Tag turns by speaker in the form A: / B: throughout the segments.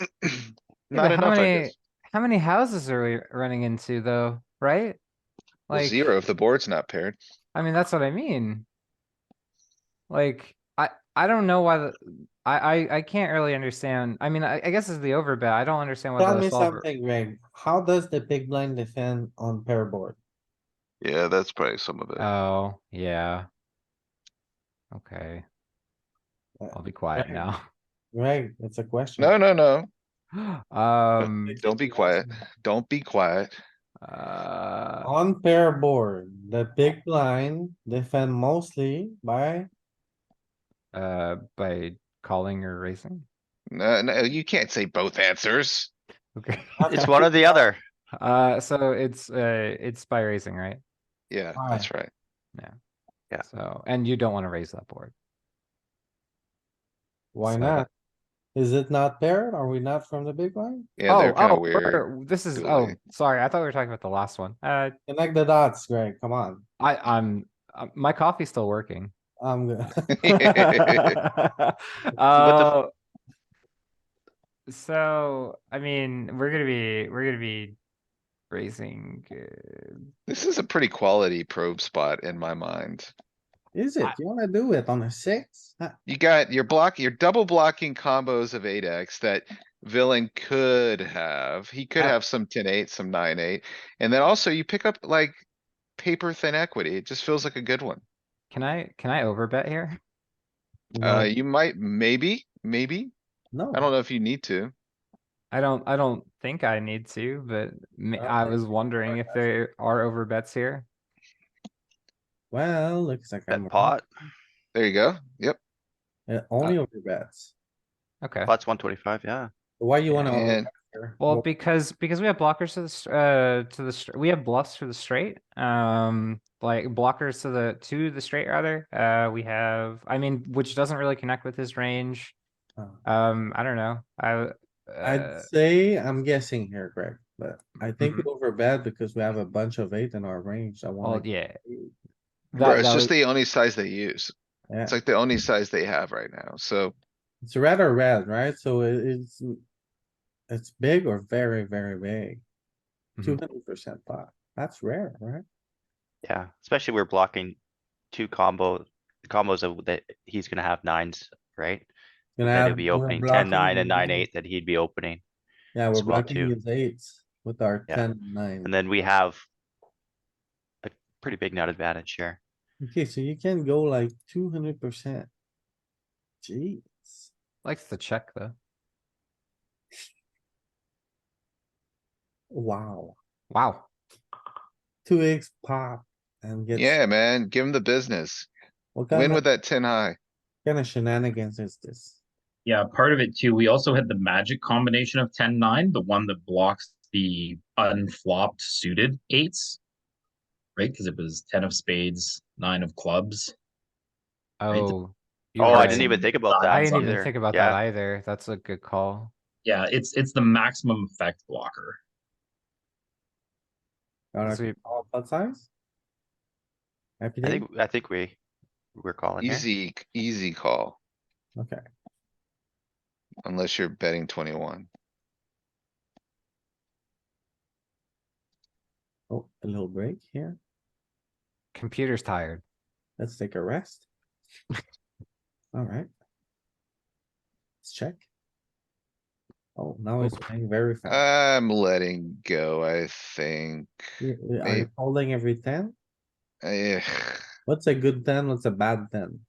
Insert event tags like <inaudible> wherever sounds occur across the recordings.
A: <clears throat>
B: Yeah, but
A: Not
B: how
A: enough, I
B: many
A: guess.
B: How many houses are we running into though, right?
A: Well,
B: Like,
A: Zero if the board's not paired.
B: I mean, that's what I mean. Like, I, I don't know why the, I, I, I can't really understand. I mean, I, I guess it's the overbet. I don't understand why
C: Tell
B: the
C: me
B: solver.
C: something, Greg. How does the big blind defend on pair board?
D: Yeah, that's probably some of it.
B: Oh, yeah. Okay.
C: Uh,
B: I'll be quiet
C: okay.
B: now.
C: Greg, it's a question.
A: No, no, no.
B: <laughs> Um,
A: Don't be quiet. Don't be quiet.
B: uh,
C: On pair board, the big blind defend mostly by,
B: uh, by calling or racing?
A: No, no, you can't say both answers.
B: Okay. <laughs>
C: <laughs>
E: It's one or the other.
B: Uh, so it's, uh, it's by raising, right?
A: Yeah,
C: Why?
A: that's right.
E: Yeah.
B: So, and you don't wanna raise that board.
C: why
B: So-
C: not? Is it not paired? Are we not from the big blind?
A: Yeah, they're
B: Oh,
A: kinda
B: oh,
A: weird.
B: we're- This is, oh,
A: dueling.
B: sorry, I thought we were talking about the last one. Uh,
C: Connect the dots, Greg, come on.
B: I, I'm, uh, my coffee's still working. <laughs>
C: I'm good.
A: <laughs>
B: Uh, So, I mean, we're gonna be, we're gonna be raising, uh,
A: This is a pretty quality probe spot in my mind.
C: Is it? You wanna do it on a six? Huh,
A: You got your block, your double blocking combos of eight X that villain could have. He could
B: Yeah.
A: have some ten eight, some nine eight. And then also you pick up like paper thin equity. It just feels like a good one.
B: can I, can I overbet here?
A: Uh, you might, maybe, maybe.
C: No.
A: I don't know if you need to.
B: I don't, I don't think I need to, but ma-
C: Well,
B: I
C: I
B: was wondering if there are overbets here.
C: Well, looks like I'm.
E: Bet pot,
A: There you go. Yep.
C: Yeah, Only over bets.
B: Okay.
E: pot's one twenty-five, yeah.
C: Why you wanna?
A: And-
C: overbet here?
B: Well, because, because we have blockers to the, str- uh, to the, str- we have bluffs to the straight, um, like blockers to the, to the straight rather. Uh, we have, I mean, which doesn't really connect with his range.
C: Oh.
B: Um, I don't know. I, uh,
C: I'd say, I'm guessing here, Greg, but I think we
E: Mm-hmm.
C: overbet because we have a bunch of eight in our range. I
B: well,
E: Oh,
C: want.
B: yeah.
A: Bro,
B: That-
A: it's just
B: that was-
A: the only size they use.
C: Yeah,
A: It's like the only size they have right now. So
C: it's red or red, right? So it- it's. mm, It's big or very, very big.
E: Mm-hmm.
B: Mhm.
C: Two hundred percent pot. That's rare, right?
E: Yeah, especially we're blocking two combo, combos of that he's gonna have nines, right?
C: Gonna
E: That
C: have-
E: he'll be
C: we're
E: opening
C: blocking
E: ten, nine and
C: his
E: nine,
C: eight.
E: eight that he'd be opening.
C: Yeah, we're
E: as well,
C: blocking
E: too.
C: his eights with our
E: Yeah.
C: ten, nine.
E: And then we have a pretty big nut advantage here.
C: Okay, so you can go like two hundred percent. Jeez.
B: Likes to check though.
C: Wow,
B: Wow.
C: two eggs pop and get.
A: yeah, man, give them the business.
C: What
A: Win
C: kind
A: with
C: of,
A: that ten high.
C: kind of shenanigans is this?
F: Yeah, part of it too. We also had the magic combination of 10 9, the one that blocks the unflopped suited eights, right? Because it was 10 of spades, 9 of clubs. it's-
B: Oh. you're
E: Oh, I
B: right.
E: didn't even think about that
B: I
F: that
B: didn't even
E: either.
B: think about
E: Yeah.
B: that either. That's a good call.
F: Yeah, it's it's the maximum effect blocker.
C: Got a
B: Sweet.
C: call pot size? Happy
E: I
C: days?
E: think, I think we, we're calling here.
A: Easy, easy call.
C: Okay,
A: Unless you're betting twenty-one.
C: oh, a little break here.
B: Computer's tired.
C: Let's take a rest. Alright. Let's check. Oh, now it's playing very fast.
A: I'm letting go, I think.
C: You- you- uh, Are
A: maybe.
C: you holding every ten?
A: Eh,
C: What's a good ten? What's a bad ten?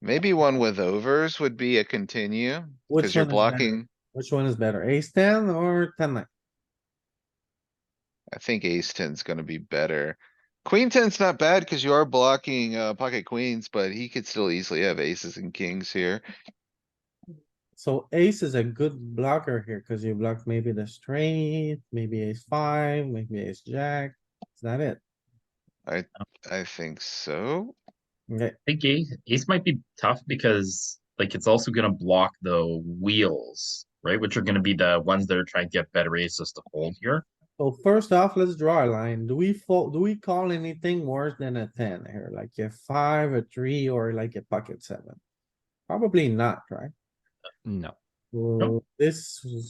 A: Maybe one with overs would be a continue,
C: Which
A: cause you're
C: one is better?
A: blocking,
C: Which one is better? Ace ten or ten nine?
A: I think ace ten's gonna be better. Queen ten's not bad, cause you are blocking, uh, pocket queens, but he could still easily have aces and kings here.
C: So ace is a good blocker here, cause you block maybe the straight, maybe ace five, maybe ace jack. Is that it?
A: I think so.
C: Okay,
F: I think ace, ace might be tough because like it's also gonna block the wheels, right? Which are gonna be the ones that are trying to get better aces to hold here.
C: so first off, let's draw a line. Do we fold, do we call anything worse than a ten here? Like a five, a three, or like a pocket seven? Probably not, right?
B: No.
C: Well, this is